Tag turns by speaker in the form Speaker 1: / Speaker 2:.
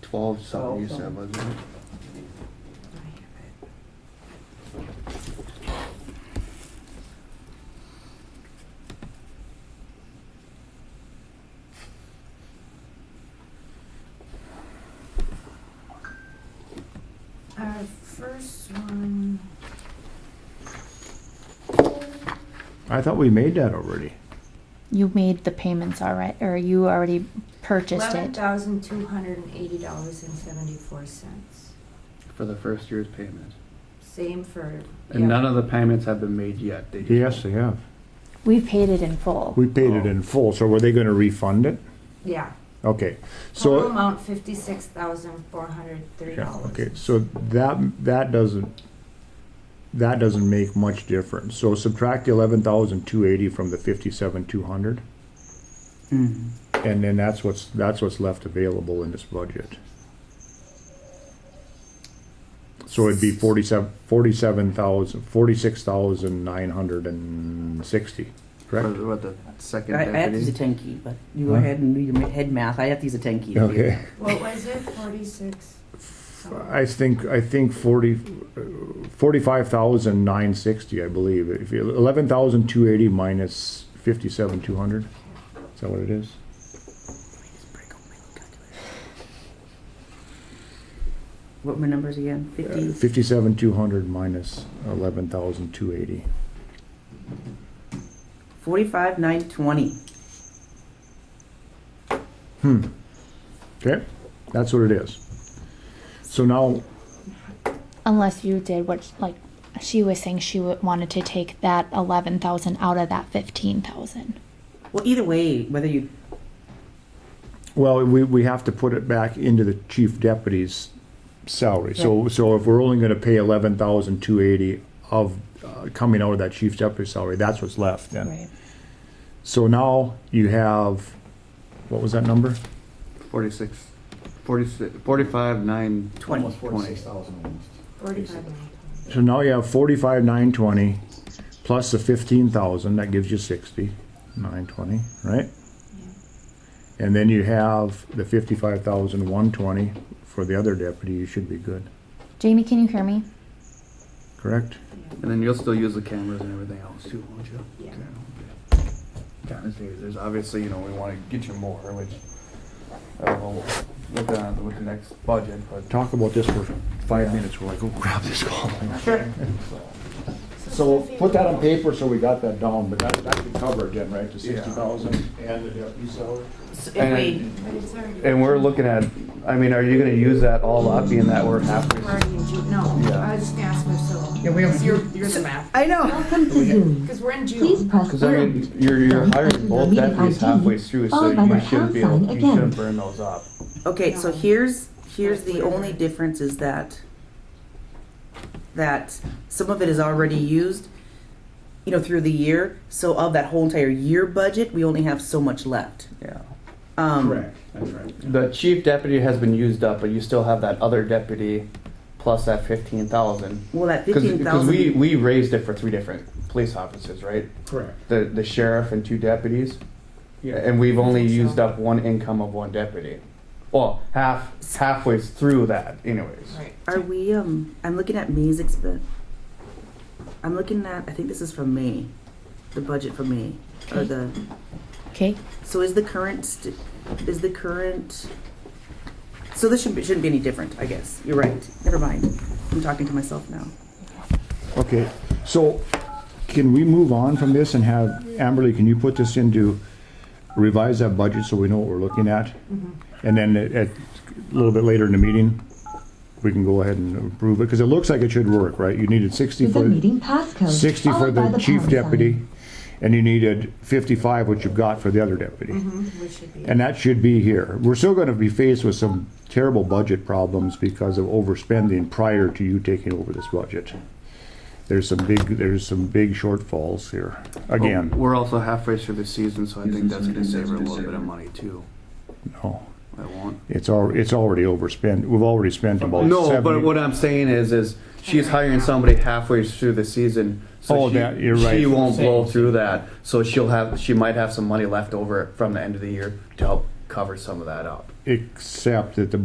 Speaker 1: twelve something you
Speaker 2: Twelve
Speaker 1: said, wasn't it?
Speaker 3: Our Uh, first one,
Speaker 4: I thought we made that already.
Speaker 5: You made the payments already, or you already purchased
Speaker 3: eleven
Speaker 5: it.
Speaker 3: thousand two hundred and eighty dollars and seventy-four cents.
Speaker 1: For the first year's payments.
Speaker 3: Same for,
Speaker 1: And
Speaker 3: yeah,
Speaker 1: none of the payments have been made yet. They just-
Speaker 4: Yes, they have. Oh.
Speaker 5: We paid it in full.
Speaker 4: We paid it in full, so were they gonna refund it?
Speaker 3: yeah.
Speaker 4: Okay,
Speaker 3: Total
Speaker 4: so,
Speaker 3: amount fifty-six thousand four hundred three
Speaker 4: yeah,
Speaker 3: dollars.
Speaker 4: okay, so that, that doesn't, that doesn't make much difference. So subtract the eleven thousand two eighty from the fifty-seven two hundred,
Speaker 2: Mm.
Speaker 4: and then that's what's, that's what's left available in this budget. So it'd be forty-seven, forty-seven thousand, forty-six thousand nine hundred and sixty,
Speaker 1: For
Speaker 4: correct?
Speaker 1: the- what, the second
Speaker 2: I, I have to use
Speaker 1: deputy?
Speaker 2: a ten key, but you go
Speaker 4: Huh?
Speaker 2: ahead and do your ma- head math. I have to use a ten key. to do
Speaker 4: Okay.
Speaker 2: that.
Speaker 3: What was it, forty-six?
Speaker 4: I think, I think forty, forty-five thousand nine sixty, I believe. If you, eleven thousand two eighty minus fifty-seven two hundred, is that what it is?
Speaker 2: What were my numbers again? Fifty.
Speaker 4: Fifty-seven two hundred minus eleven thousand two eighty.
Speaker 2: Forty-five, nine, twenty.
Speaker 4: Hmm. Okay, that's what it is. So now,
Speaker 5: Unless you did what, like, she was saying she wa- wanted to take that eleven thousand out of that fifteen thousand.
Speaker 2: Well, either way, whether you
Speaker 4: well, we, we have to put it back into the chief deputy's salary. So, so if we're only gonna pay eleven thousand two eighty of, uh, coming out of that chief deputy's salary, that's what's left then. So now you have, what was that number?
Speaker 1: Forty-six, forty-six, forty-five, nine.
Speaker 2: twenty.
Speaker 6: Almost forty-six thousand almost.
Speaker 3: Forty-five nine.
Speaker 4: So now you have forty-five, nine twenty, plus the fifteen thousand, that gives you sixty, nine twenty, right? And then you have the fifty-five thousand, one twenty for the other deputy, you should be good,
Speaker 5: Jamie, can you hear me?
Speaker 4: correct?
Speaker 1: And then you'll still use the cameras and everything else too, won't you?
Speaker 3: Yeah.
Speaker 1: Okay. Kind of saves, there's obviously, you know, we wanna get you more, which, I don't know, with the, with the next budget, but.
Speaker 4: Talk about this for five minutes, we're like, oh, grab this call. So put that on paper so we got that down, but that, that could cover again, right, the sixty thousand and the deputy salary?
Speaker 2: So if
Speaker 1: And-
Speaker 2: we,
Speaker 3: But it's already.
Speaker 1: And we're looking at, I mean, are you gonna use that all up, being that we're halfway?
Speaker 3: We're already in June, no,
Speaker 1: Yeah.
Speaker 3: I was just gonna ask Priscilla.
Speaker 2: Yeah, we have-
Speaker 3: Because You're, you're the math,
Speaker 2: I know.
Speaker 3: because we're in
Speaker 7: Please
Speaker 3: June.
Speaker 7: press
Speaker 1: Cause I
Speaker 7: one.
Speaker 1: mean, you're, you're hiring both deputies halfway through, so
Speaker 7: Followed by
Speaker 1: you
Speaker 7: the
Speaker 1: shouldn't
Speaker 7: pound
Speaker 1: be able,
Speaker 7: sign
Speaker 1: you
Speaker 7: again.
Speaker 1: shouldn't burn those up.
Speaker 2: Okay, so here's, here's the only difference is that, that some of it is already used, you know, through the year. So of that whole entire year budget, we only have so much left.
Speaker 1: Yeah.
Speaker 2: Um,
Speaker 4: that's right.
Speaker 1: The chief deputy has been used up, but you still have that other deputy plus that fifteen thousand.
Speaker 2: Well, that
Speaker 1: Cause,
Speaker 2: fifteen
Speaker 1: 'cause we,
Speaker 2: thousand,
Speaker 1: we raised it for three different police officers, right?
Speaker 4: Correct.
Speaker 1: The, the sheriff and two deputies.
Speaker 4: Yeah.
Speaker 1: And we've only
Speaker 3: I think so.
Speaker 1: used up one income of one deputy. Well, half, halfway through that anyways.
Speaker 3: Right.
Speaker 2: are we, um, I'm looking at May's expense. I'm looking at, I think this is from May, the budget for May, or
Speaker 5: Okay.
Speaker 2: the,
Speaker 5: Okay,
Speaker 2: so is the current, st- is the current, so this shouldn't, be- shouldn't be any different, I guess. You're right. Never mind. I'm talking to myself now.
Speaker 4: Okay, so can we move on from this and have, Amberly, can you put this into, revise that budget so we know what we're looking at? And then at, at- a little bit later in the meeting, we can go ahead and approve it, because it looks like it should work, right? You needed sixty
Speaker 7: With
Speaker 4: for,
Speaker 7: a meeting passcode.
Speaker 4: sixty for
Speaker 7: followed by
Speaker 4: the chief
Speaker 7: pound sign.
Speaker 4: deputy, and you needed fifty-five, which you've got for the other deputy.
Speaker 3: We should be.
Speaker 4: And that should be here. We're still gonna be faced with some terrible budget problems because of overspending prior to you taking over this budget. There's some big, there's some big shortfalls here,
Speaker 1: Well,
Speaker 4: again.
Speaker 1: We're also halfway through the season, so I think that's gonna save her a little bit of money too. Oh.
Speaker 4: no.
Speaker 1: I won't.
Speaker 4: It's al, it's already overspent, we've already spent about seventy.
Speaker 1: No, but what I'm saying is, is she's hiring somebody halfway through the season. So
Speaker 4: Oh,
Speaker 1: she,
Speaker 4: that- you're right.
Speaker 1: She won't blow through that, so she'll have, she might have some money left over from the end of the year to help cover some of that up.
Speaker 4: Except that the